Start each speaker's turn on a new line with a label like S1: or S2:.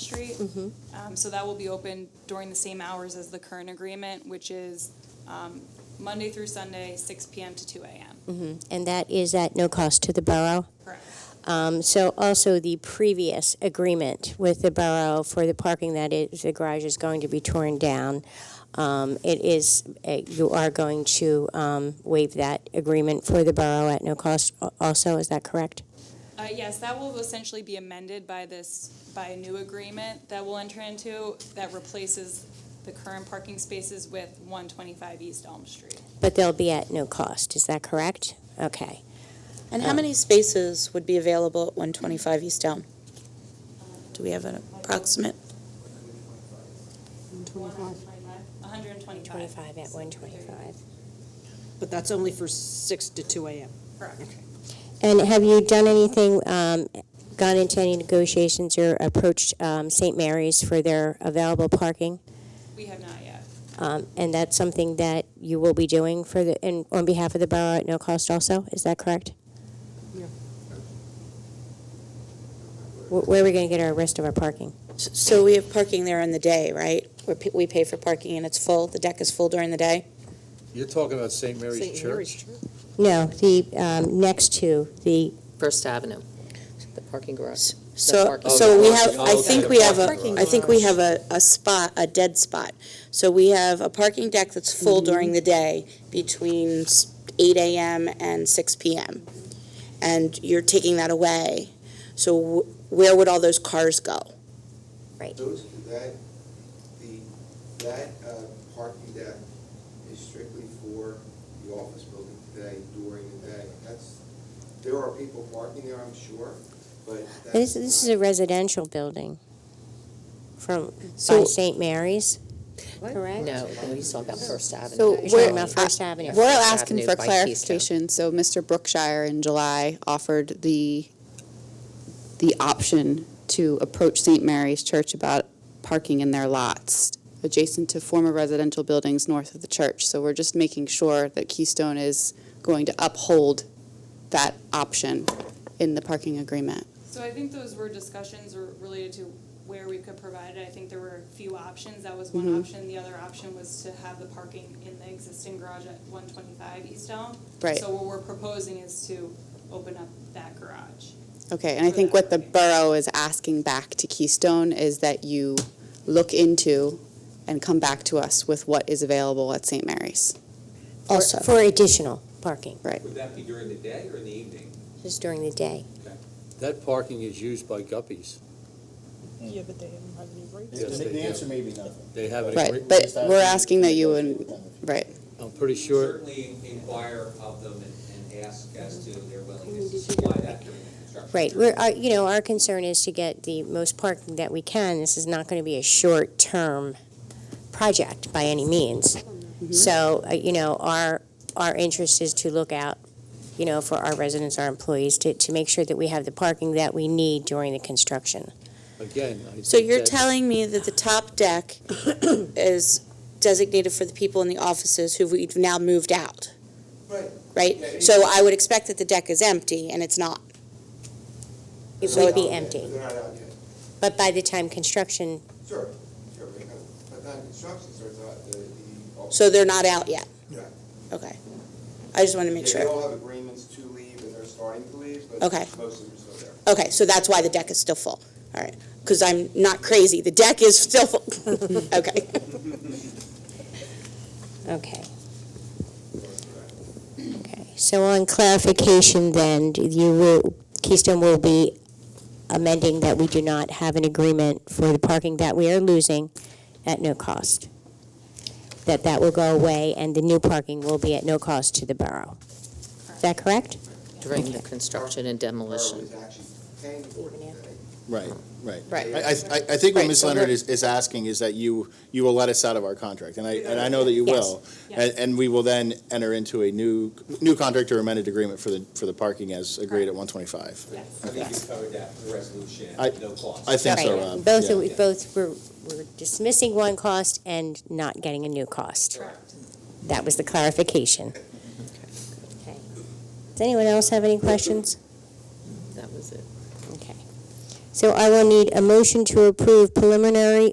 S1: Street. Um, So that will be open during the same hours as the current agreement, which is um, Monday through Sunday, 6 PM to 2 AM.
S2: And that is at no cost to the borough.
S1: Correct.
S2: Um, So also the previous agreement with the borough for the parking that is, the garage is going to be torn down. Um, It is, uh, you are going to um, waive that agreement for the borough at no cost a- also, is that correct?
S1: Uh, Yes, that will essentially be amended by this, by a new agreement that we'll enter into that replaces the current parking spaces with 125 East Elm Street.
S2: But they'll be at no cost, is that correct? Okay.
S3: And how many spaces would be available at 125 East Elm? Do we have an approximate?
S1: 125.
S2: 25 at 125.
S4: But that's only for 6 to 2 a.m.
S1: Correct.
S2: And have you done anything, um, gone into any negotiations or approached um, St. Mary's for their available parking?
S1: We have not yet.
S2: Um, And that's something that you will be doing for the, and on behalf of the borough at no cost also, is that correct?
S4: Yeah.
S2: Wh- Where are we going to get our rest of our parking?
S3: So we have parking there in the day, right? Where pe- we pay for parking and it's full, the deck is full during the day?
S5: You're talking about St. Mary's
S4: St. Mary's
S5: Church?
S4: Church.
S2: No, the, um, next to the,
S6: First Avenue, the parking garage.
S3: So,
S6: parking.
S3: so
S5: Oh,
S3: we
S5: the
S3: have,
S5: parking.
S3: I
S5: Oh,
S3: think
S5: okay.
S3: we have a,
S4: Parking
S3: I think we have a, a spot, a dead spot. So we have a parking deck that's full during the day between s- 8 AM and 6 PM. And you're taking that away. So wh- where would all those cars go?
S7: Those, that, the, that uh, parking deck is strictly for the office building today during the day. That's, there are people parking there, I'm sure, but that's.
S2: this, this is
S7: not-
S2: a residential building from, by
S3: So-
S2: St. Mary's, correct?
S6: No, we saw about First Avenue.
S8: So
S2: You're
S8: we're-
S2: talking about First Avenue.
S8: We're
S6: First
S8: asking
S6: Avenue
S8: for
S6: by Keystone.
S8: clarification. So Mr. Brookshire in July offered the, the option to approach St. Mary's Church about parking in their lots adjacent to former residential buildings north of the church. So we're just making sure that Keystone is going to uphold that option in the parking agreement.
S1: So I think those were discussions were related to where we could provide it. I think there were a few options. That was one option. The other option was to have the parking in the existing garage at one twenty-five East Elm.
S8: Right.
S1: So what we're proposing is to open up that garage.
S8: Okay, and I think what the borough is asking back to Keystone is that you look into and come back to us with what is available at St. Mary's.
S2: For- For additional parking,
S9: Would that be during the day or in the evening?
S2: just during the day.
S5: That parking is used by Guppies.
S4: Yeah, but they haven't had any breaks.
S5: Yes, they
S10: The answer
S5: do.
S10: may be nothing.
S5: They have an
S8: Right,
S5: agreement,
S8: but we're asking that you would, right,
S5: I'm pretty
S9: We
S5: sure,
S9: Certainly inquire of them and, and ask as to their willingness to supply that during the construction.
S2: Right, we're, our- you know, our concern is to get the most parking that we can. This is not going to be a short-term project by any means. So, uh, you know, our, our interest is to look out, you know, for our residents, our employees, to, to make sure that we have the parking that we need during the construction.
S5: again. I
S3: So
S5: think
S3: you're
S5: that-
S3: telling me that the top deck is designated for the people in the offices who we've now moved out,
S7: Right,
S3: right? So I would expect that the deck is empty, and it's not.
S2: It
S3: So
S2: would
S3: it-
S2: be empty,
S7: they're not out yet.
S2: but by the time construction,
S7: Sure, sure, because by the time construction starts out, the, the. office-
S3: So they're not out yet?
S7: Yeah.
S3: Okay. I just want to make
S7: Yeah, They all
S3: sure.
S7: have agreements to leave and they're starting to leave, but
S3: Okay.
S7: most of them are still there.
S3: Okay, so that's why the deck is still full. All right, because I'm not crazy. The deck is still full. Okay.
S2: okay. Okay, so on clarification then, you will, Keystone will be amending that we do not have an agreement for the parking that we are losing at no cost. That that will go away and the new parking will be at no cost to the borough. Is that correct?
S6: During the construction and
S7: Borough
S6: demolition.
S7: is actually paying for it today.
S10: Right, right.
S8: Right.
S10: I, I, I- I think what
S8: Right,
S10: Ms.
S8: so
S10: Leonard
S8: we're-
S10: is, is asking is that you, you will let us out of our contract, and I, and I know that you
S2: Yes,
S10: will. And, and we will then enter into a new, new contract or amended agreement for the, for the parking as agreed at one twenty-five.
S1: Yes.
S9: I think you covered that in the resolution,
S10: I-
S9: no cost.
S10: I think so,
S2: Right.
S10: Rob.
S2: Both,
S10: yeah.
S2: are- both, we're we're dismissing one cost and not getting a new cost.
S1: Correct.
S2: That was the clarification. Okay. Does anyone else have any questions?
S6: That was it.
S2: Okay. So I will need a motion to approve preliminary